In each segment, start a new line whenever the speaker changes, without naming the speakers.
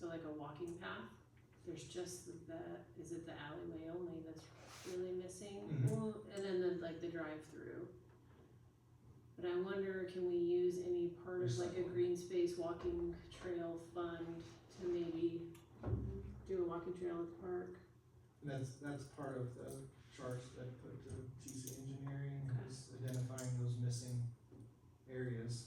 like a walking path. There's just the, the- is it the alleyway only that's really missing?
Mhm.
Well, and then the, like the drive-through. But I wonder, can we use any part of
There's
like a
something.
green space walking trail fund to maybe do a walking trail at the park?
And that's, that's part of the charge that I put to TC engineering, is identifying those missing areas.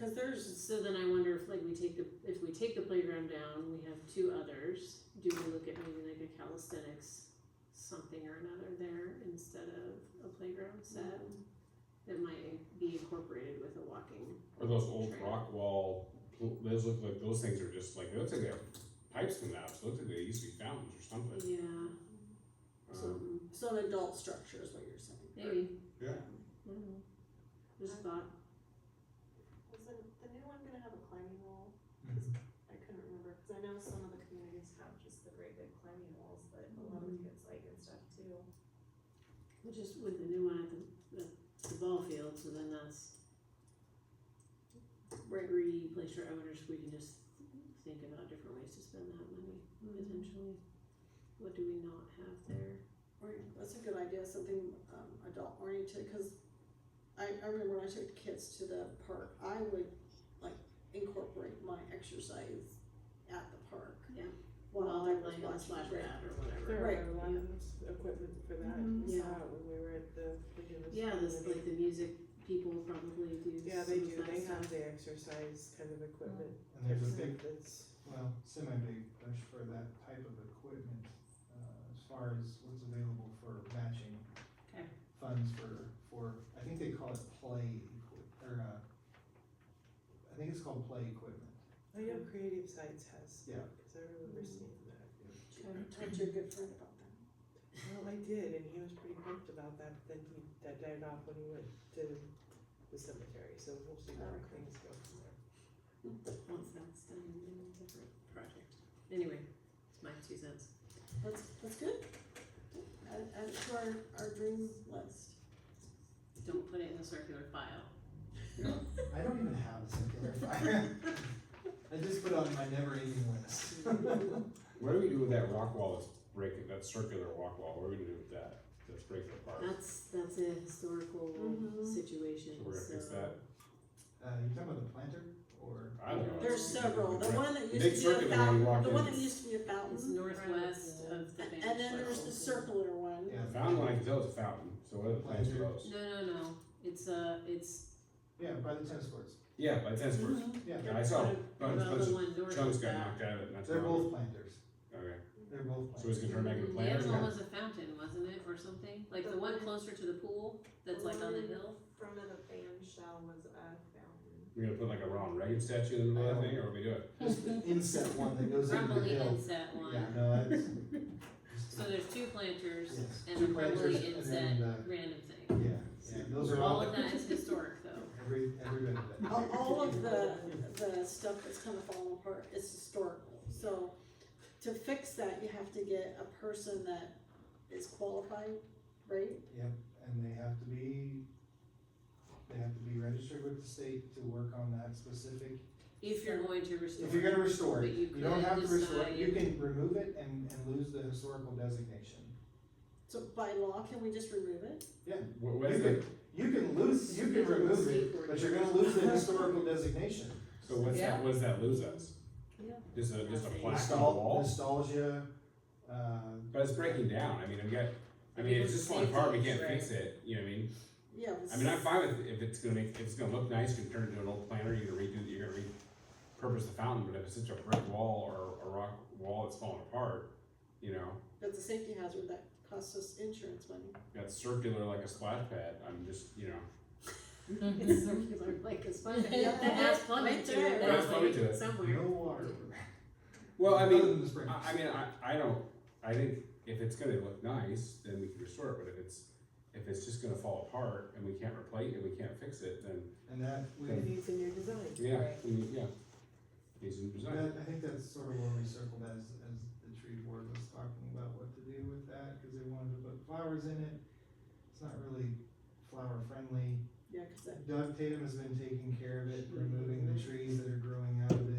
Cause there's,
So then I wonder if like we take the, if we take the playground down, we have two others, do we look at maybe like a calisthenics something or another there instead of a playground set? That might be incorporated with a walking,
Or those old
Trail.
rock wall, pl- those look like, those things are just like, they look like they have pipes coming out, so it looks like they used to be fountains or something.
yeah,
Um,
something,
so an adult structure is what you're saying.
maybe, I
Yeah,
don't know, Mm-hmm. just thought,
Was the, the new one gonna have a climbing wall?
Mhm.
I couldn't remember, cause I know some of the communities have just the great big climbing walls that a lot of
Mm-hmm.
kids like and stuff too.
well, just with the new one at the, the, the ball field, so then that's Gregory place for owners, we can just think about different ways to spend that money, potentially, what do we not have there?
Or, that's a good idea, something, um, adult oriented, cause I, I remember when I took the kids to the park, I would like incorporate my exercise at the park.
Yeah.
While I was
Like on
watching.
Splash
Right.
Pad or whatever.
There
Right.
are a lot of equipment for that,
Mhm.
we saw
Yeah.
it when we were at the. beginning of
Yeah, this,
school.
like the music people probably do.
Yeah,
some
they
of
do,
that
they
stuff.
have the exercise kind of equipment.
And there's a big,
That's,
well, semi-big push for that type of equipment, uh, as far as what's available for matching.
Okay.
Funds for, for, I think they call it play, equi- or, uh, I think it's called play equipment.
I know Creative Sites has,
Yeah.
cause I remember seeing that.
Talk to your good friend about that.
Well, I did, and he was pretty pumped about that, but then he, that died off when he went to the cemetery, so we'll see how
Okay.
things go from there.
Once that's done, then a different project. Anyway, it's my two cents.
That's, that's good. Add, add it to our, our dream list.
Don't put it in the circular file.
I don't even have a circular fire. I just put it on my never-ending list. Uh,
what do we do with that rock wall that's breaking, that circular rock wall, what are we gonna do with that, that's breaking apart?
That's, that's a historical
Mm-hmm.
Mhm.
situation,
So we're gonna fix
so.
that,
Uh, you're talking about the planter or?
I don't know.
There's
it's-
several, Oh, the
Right.
one that
Big
used to be a
circular one we
fountain,
walked
the
in.
one that used to be a fountain.
It's northwest of the Spanish.
Mhm. And then there's the
Fort.
circular one.
Yeah,
I Found one, I can tell it's a fountain, so what are the plans for those?
Mm-hmm.
No, no, no, it's a, it's.
yeah, by the tennis courts,
Yeah, by tennis courts,
Mm-hmm.
yeah.
yeah, I saw, a
What
bunch,
about the
bunch
one
of
north
chunks
of
got
that?
knocked out of it, and that's.
They're
wrong.
both planters,
Okay,
they're both
so
planters.
it's gonna turn back into
Mm,
planters
The other
now?
one was a fountain, wasn't it, or something? Like the one closer to the pool, that's like
Mm-hmm.
on the hill?
Front of the fan shell was a fountain.
We're gonna put like a Ronald Reagan statue in the middle of that thing, or what we do it?
Just the inset one that goes into the
Probably
hill.
inset
Yeah,
one.
no, that's.
So there's two planters
Yes,
and
two
a probably
planters and
inset
then, Oh. uh,
random thing.
Yeah, yeah, those are
All
all,
of that is historic though.
every, every bit of it.
All, all of the, the stuff that's kind of falling apart is historical, so to fix that, you have to get a person that is qualified, right?
Yep, and they have to be, they have to be registered with the state to work on that specific
If you're going to restore.
If you're gonna restore it,
But you
you don't
could
have to restore it, you
decide-
can remove it and, and lose the historical designation.
So by law, can we just remove it?
What, what
You
is it,
can, you can lose, you can remove it, but you're gonna lose the historical designation.
so what's that, what does that lose us?
Yeah.
Just a, just a
Nothing.
plaque on the
Nostal-
wall?
Nostalgia, uh,
But it's breaking down, I mean, we got, I mean, it's just falling apart, we can't fix it, you know what I mean?
Yeah.
I mean, I'm fine with, if it's gonna make, if it's gonna look nice, you can turn it into an old planter, you're gonna redo, you're gonna repurpose the fountain, but if it's such a brick wall or a rock wall that's falling apart, you know,
That's a safety hazard that costs us insurance money.
that's circular like a splash pad, I'm just, you know.
It's circular like a sponge.
Yeah.
That has plumbing
Right
to
there.
it.
That's plumbing to it.
Somewhere.
no water.
Well, I mean,
Other than the sprinklers.
I, I mean, I, I don't, I think if it's gonna look nice, then we can restore it, but if it's, if it's just gonna fall apart and we can't replace it, we can't fix it, then,
And that, we,
It needs a new design.
yeah, we- yeah. Needs a new design.
that, I think that's sort of where we circled as, as the tree board was talking about what to do with that, cause they wanted to put flowers in it. It's not really flower friendly.
Yeah, cause that,
Doug Tatum has been taking care of it, Um, removing the trees that are growing out of